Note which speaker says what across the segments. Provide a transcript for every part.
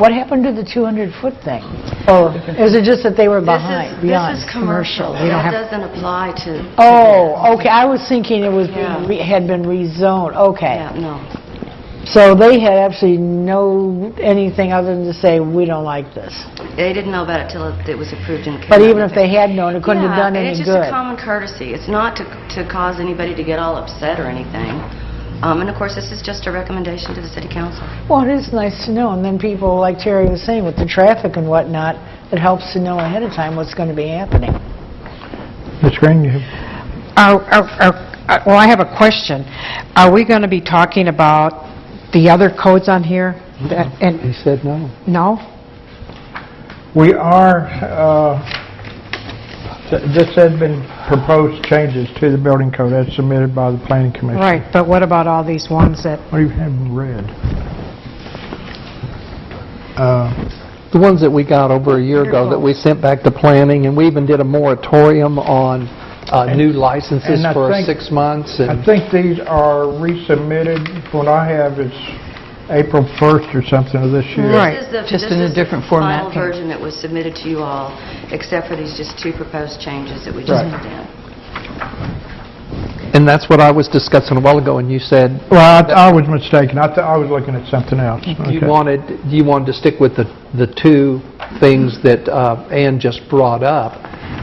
Speaker 1: What happened to the 200-foot thing? Or is it just that they were
Speaker 2: Oh. This is-
Speaker 1: behind, beyond?
Speaker 2: This is commercial.
Speaker 1: We don't have,
Speaker 2: That doesn't apply to... to
Speaker 1: oh, okay, I was thinking it was, being
Speaker 2: Yeah.
Speaker 1: re- had been rezoned,
Speaker 2: that.
Speaker 1: okay.
Speaker 2: Yeah, no.
Speaker 1: So they had absolutely no, anything other than to say, "We don't like this."
Speaker 2: They didn't know about it till it it was approved and...
Speaker 1: But even if they had known, it couldn't have done
Speaker 2: Yeah, and
Speaker 1: any
Speaker 2: it's
Speaker 1: good.
Speaker 2: just a common courtesy. It's not to to cause anybody to get all upset or anything. Um, And of course, this is just a recommendation to the city council.
Speaker 1: Well, it is nice to know, and then people, like Terry was saying, with the traffic and whatnot, it helps to know ahead of time what's going to be happening.
Speaker 3: Ms. Green, you have-
Speaker 4: Are- are- are- uh, Well, I have a question. Are we going to be talking about the other codes on here? That- And,
Speaker 3: he said no.
Speaker 4: no?
Speaker 3: We are, uh, th- this has been proposed changes to the building code as submitted by the planning commission.
Speaker 4: Right, but what about all these ones that,
Speaker 3: What do you have in red? Uh,
Speaker 5: The ones that we got over a year ago that we sent back to planning, and we even did a moratorium on uh, new licenses
Speaker 3: And I
Speaker 5: for
Speaker 3: think-
Speaker 5: six months. and-
Speaker 3: I think these are resubmitted, what I have is April 1st or something of this year.
Speaker 4: Right.
Speaker 2: This is the-
Speaker 6: just in a different format.
Speaker 2: This is the final version that was submitted to you all, except for these just two proposed changes that we just
Speaker 3: Right.
Speaker 2: put in.
Speaker 5: And that's what I was discussing a while ago, and you said
Speaker 3: Well, I I was mistaken. I thought, I was looking at something else.
Speaker 5: you
Speaker 3: Okay.
Speaker 5: wanted, you wanted to stick with the, the two things that uh, Ann just brought up,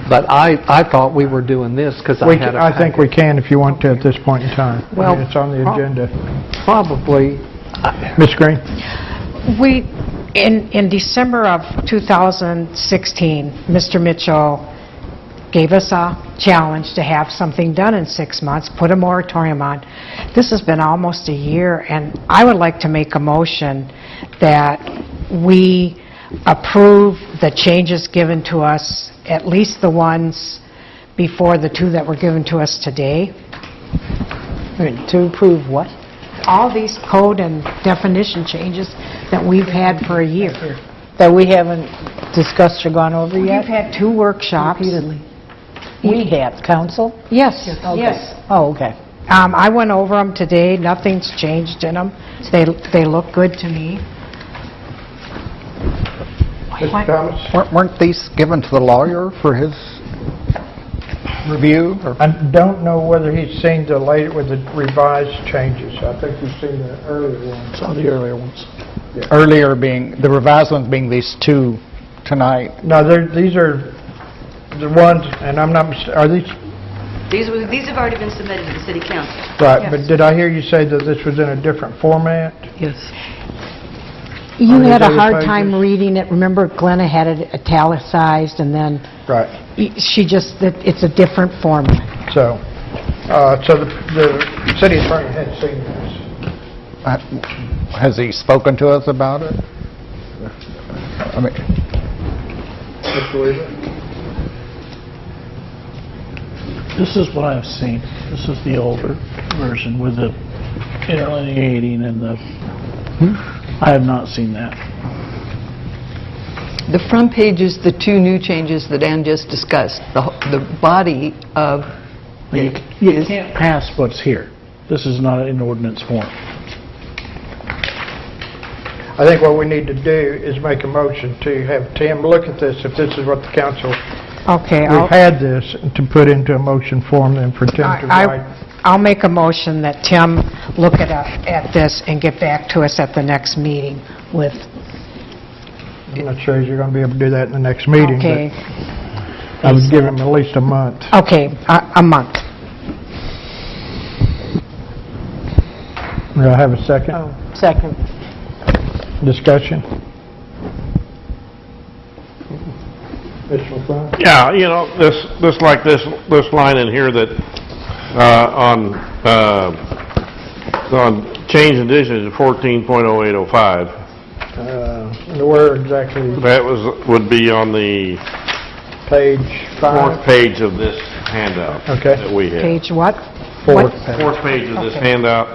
Speaker 5: but I, I thought we were doing this because I
Speaker 3: We
Speaker 5: had
Speaker 3: ca-
Speaker 5: a
Speaker 3: I think we can if you want to at this point in time. I mean,
Speaker 5: Well,
Speaker 3: It's on the
Speaker 5: prob-
Speaker 3: agenda.
Speaker 5: packet. Probably,
Speaker 3: Ms. Green?
Speaker 4: we, in in December of 2016, Mr. Mitchell gave us a challenge to have something done in six months, put a moratorium on. This has been almost a year, and I would like to make a motion that we approve the changes given to us, at least the ones before the two that were given to us today.
Speaker 1: To approve what?
Speaker 4: all these code and definition changes that we've had for a year.
Speaker 1: That we haven't discussed or gone over
Speaker 4: We've
Speaker 1: yet?
Speaker 4: had two workshops. Repeatedly.
Speaker 1: We have, council?
Speaker 4: Yes,
Speaker 1: Okay.
Speaker 4: yes.
Speaker 1: Oh, okay.
Speaker 4: Um, I went over them today, nothing's changed in them. They, they look good to me.
Speaker 3: Mr. Thomas?
Speaker 7: Weren't weren't these given to the lawyer for his review? or-
Speaker 3: I don't know whether he's seen the later, with the revised changes. I think he's seen the earlier ones.
Speaker 7: Some of the earlier ones. Earlier being, the revised ones being these two tonight.
Speaker 3: No, they're- these are the ones, and I'm not, mis- are these,
Speaker 2: These were- these have already been submitted to the city council.
Speaker 3: right, but did I hear you say that this was in a different format?
Speaker 4: You
Speaker 3: Are these
Speaker 4: had a
Speaker 3: other
Speaker 4: hard time
Speaker 3: pages?
Speaker 4: reading it, remember Glenna had it italicized, and then
Speaker 3: Right.
Speaker 4: y- she just, that it's a different format.
Speaker 3: So, uh, so the the city attorney had seen this.
Speaker 7: Uh, Has he spoken to us about it? I mean,
Speaker 3: Mr. Weaver?
Speaker 8: This is what I've seen. This is the older version with the interlineating and the, I have not seen that.
Speaker 6: The front page is the two new changes that Ann just discussed. The h- the body of
Speaker 8: You
Speaker 6: it
Speaker 8: you
Speaker 6: is-
Speaker 8: can't pass what's here. This is not in ordinance form.
Speaker 3: I think what we need to do is make a motion to have Tim look at this, if this is what the council,
Speaker 4: Okay, I'll,
Speaker 3: we've had this, to put into a motion form then for Tim to
Speaker 4: I-
Speaker 3: write.
Speaker 4: I- I'll make a motion that Tim look it up at this and get back to us at the next meeting with,
Speaker 3: I'm not sure you're going to be able to do that in the next meeting,
Speaker 4: okay,
Speaker 3: but I would give him at least a month.
Speaker 4: okay, a a month.
Speaker 3: Do I have a second
Speaker 1: Oh, second.
Speaker 3: discussion? Mr. McLean?
Speaker 9: Yeah, you know, this, this, like this, this line in here that, uh, on, uh, on change in addition to fourteen point oh eight oh five,
Speaker 3: Uh, and Where exactly,
Speaker 9: that was, would be on the
Speaker 3: page
Speaker 9: fourth
Speaker 3: five?
Speaker 9: page of this handout.
Speaker 3: Okay.
Speaker 9: That we have.
Speaker 4: Page what?
Speaker 3: Fourth
Speaker 4: What?
Speaker 3: page.
Speaker 9: Fourth page of this handout.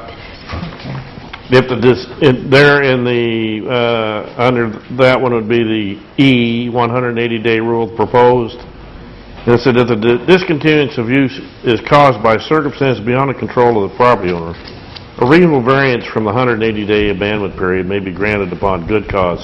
Speaker 9: If the, dis- in- there in the, uh, under that one would be the E, one hundred and eighty day rule proposed. And it said that the di- discontinuance of use is caused by circumstances beyond the control of the property owner. A reasonable variance from the 180-day abandonment period may be granted upon good cause